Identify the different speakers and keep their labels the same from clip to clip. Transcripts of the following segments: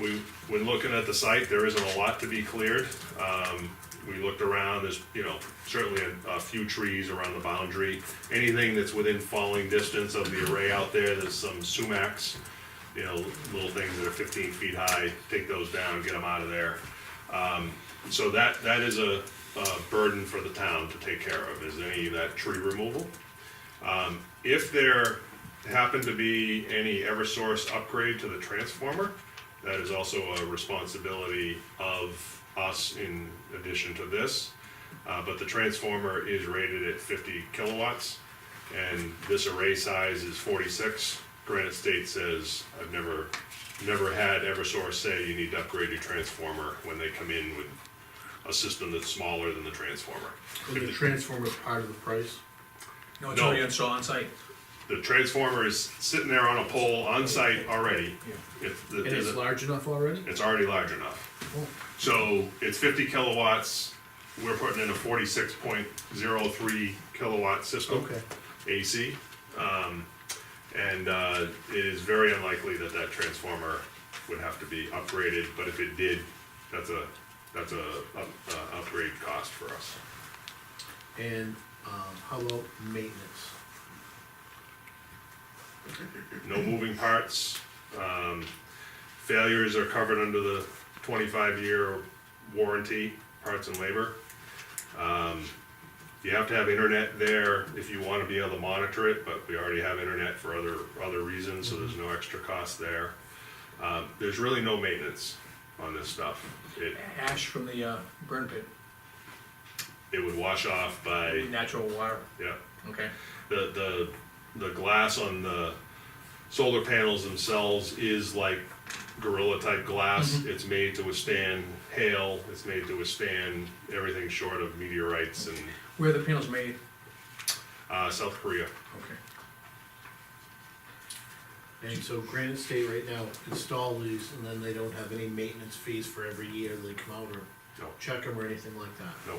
Speaker 1: we, when looking at the site, there isn't a lot to be cleared. Um, we looked around, there's, you know, certainly a, a few trees around the boundary. Anything that's within falling distance of the array out there, there's some sumacs, you know, little things that are fifteen feet high, take those down, get them out of there. Um, so that, that is a, a burden for the town to take care of, is any of that tree removal. Um, if there happened to be any Eversource upgrade to the transformer, that is also a responsibility of us in addition to this. Uh, but the transformer is rated at fifty kilowatts, and this array size is forty-six. Granite State says, I've never, never had Eversource say you need to upgrade your transformer when they come in with a system that's smaller than the transformer.
Speaker 2: And the transformer is part of the price?
Speaker 3: No, it's
Speaker 1: No.
Speaker 3: already installed on site.
Speaker 1: The transformer is sitting there on a pole on site already. If the-
Speaker 2: And it's
Speaker 1: the-
Speaker 2: large enough already? Oh.
Speaker 1: it's already large enough. So it's fifty kilowatts, we're putting in a forty-six point zero three kilowatt system.
Speaker 2: Okay.
Speaker 1: AC, um, and, uh, it is very unlikely that that transformer would have to be upgraded, but if it did, that's a, that's a, up- uh, upgrade cost for us.
Speaker 2: And, um, how about maintenance?
Speaker 1: no moving parts. Um, failures are covered under the twenty-five year warranty, parts and labor. Um, you have to have internet there if you wanna be able to monitor it, but we already have internet for other, other reasons, so there's no extra cost there. Um, there's really no maintenance on this stuff. It,
Speaker 3: Ash from the uh, burn pit,
Speaker 1: it would wash off by,
Speaker 3: natural water,
Speaker 1: yeah,
Speaker 3: okay?
Speaker 1: the the the glass on the solar panels themselves is like gorilla type glass.
Speaker 3: Mm-hmm.
Speaker 1: It's made to withstand hail. It's made to withstand everything short of meteorites and
Speaker 3: Where are the panels made?
Speaker 1: uh, South Korea.
Speaker 3: Okay.
Speaker 2: And so Granite State right now install these and then they don't have any maintenance fees for every year they come out or
Speaker 1: No,
Speaker 2: check them or anything like that.
Speaker 1: no.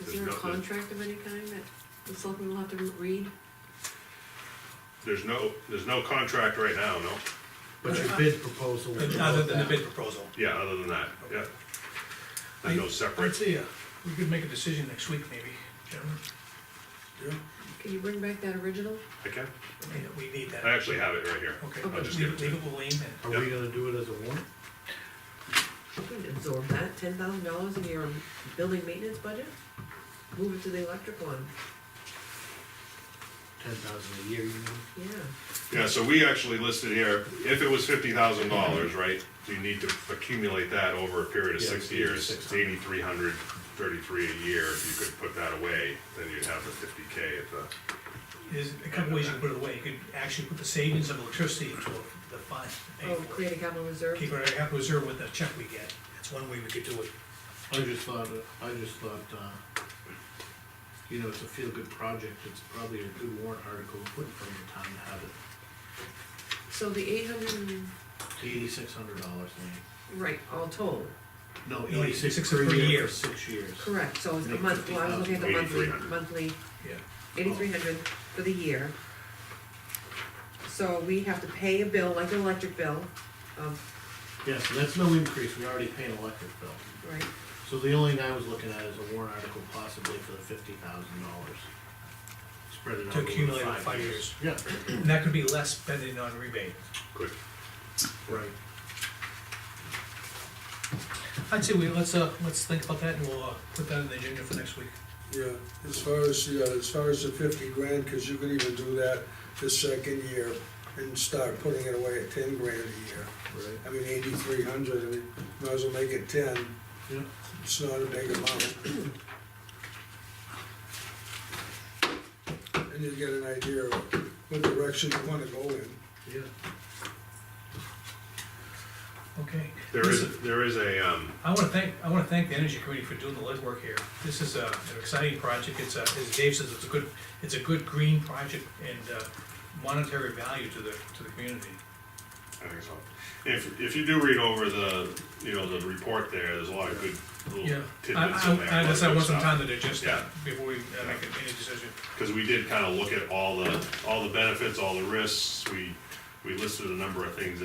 Speaker 4: Is
Speaker 1: There's
Speaker 4: there a
Speaker 1: no- there-
Speaker 4: contract of any kind that the selectmen will have to read?
Speaker 1: There's no there's no contract right now. No.
Speaker 2: But your bid proposal. will
Speaker 3: Other than the
Speaker 2: that.
Speaker 3: bid proposal.
Speaker 1: Yeah. Other than that. Yeah. There's no separate.
Speaker 3: I'd say, uh, we could make a decision next week, maybe, gentlemen.
Speaker 4: Can you bring back that original?
Speaker 1: I can.
Speaker 3: I mean, We need
Speaker 1: I
Speaker 3: that.
Speaker 1: actually have it right here.
Speaker 3: Okay,
Speaker 4: I'll
Speaker 3: leave
Speaker 1: just
Speaker 3: leave
Speaker 1: give it
Speaker 3: it
Speaker 1: to
Speaker 3: with Lean and
Speaker 2: Are we gonna do it as a warrant?
Speaker 4: We can absorb that, ten thousand dollars in your building maintenance budget? Move it to the electric one,
Speaker 2: Ten thousand a year, you mean?
Speaker 4: yeah.
Speaker 1: Yeah, so we actually listed here, if it was fifty thousand dollars, right, you need to accumulate that over a period of
Speaker 2: Yeah,
Speaker 1: six
Speaker 2: it's
Speaker 1: years,
Speaker 2: 8,600.
Speaker 1: eighty-three hundred, thirty-three a year, if you could put that away, then you'd have the fifty K at the,
Speaker 3: there's a couple ways you can put it away. You could actually put the savings of electricity into the fund. to pay
Speaker 4: Oh,
Speaker 3: for it.
Speaker 4: create a capital reserve?
Speaker 3: Keep it, have reserve with the check we get. That's one way we could do it.
Speaker 2: I just thought, I just thought, uh, you know, it's a feel-good project, it's probably a good warrant article to put in front of the town to have it.
Speaker 4: So the eight hundred,
Speaker 2: Eighty-six hundred dollars, Lean.
Speaker 4: right, all told,
Speaker 2: No,
Speaker 3: No,
Speaker 2: eighty-six
Speaker 3: 86
Speaker 2: per
Speaker 3: per
Speaker 2: year
Speaker 3: year.
Speaker 2: for six years.
Speaker 4: correct, so it's the
Speaker 2: Make
Speaker 4: month, well, I was looking at the monthly,
Speaker 1: 50,000.
Speaker 4: monthly,
Speaker 3: Yeah.
Speaker 4: eighty-three hundred for the year. So we have to pay a bill, like an electric bill, um, of,
Speaker 2: Yes, and that's no increase, we already pay an electric bill.
Speaker 4: right,
Speaker 2: So the only thing I was looking at is a warrant article possibly for the fifty thousand dollars. Spread it out
Speaker 3: To
Speaker 2: over
Speaker 3: accumulate over
Speaker 2: five
Speaker 3: five
Speaker 2: years. Yeah,
Speaker 3: And that could be less spending on rebate.
Speaker 1: quick.
Speaker 2: right.
Speaker 3: I'd say we, let's, uh, let's think about that and we'll, uh, put that in the agenda for next week.
Speaker 5: Yeah, as far as, yeah, as far as the fifty grand, cause you could even do that the second year and start putting it away at ten grand a year.
Speaker 2: Right.
Speaker 5: I mean, eighty-three hundred, I mean, might as well make it ten,
Speaker 2: Yeah,
Speaker 5: it's not a big amount. And you get an idea of what direction you wanna go in.
Speaker 2: yeah.
Speaker 3: Okay.
Speaker 1: There is, there is a, um,
Speaker 3: I wanna thank, I wanna thank the energy committee for doing the legwork here. This is uh, an exciting project, it's, uh, as Dave says, it's a good, it's a good green project and uh, monetary value to the, to the community.
Speaker 1: I think so. If, if you do read over the, you know, the report there, there's a lot of good
Speaker 3: Yeah,
Speaker 1: little
Speaker 3: I,
Speaker 1: tidbits in there.
Speaker 3: I, I guess I want some time to digest
Speaker 1: uh, Yeah.
Speaker 3: that before we uh, make any decision.
Speaker 1: Cause we did kinda look at all the, all the benefits, all the risks, we, we listed a number of things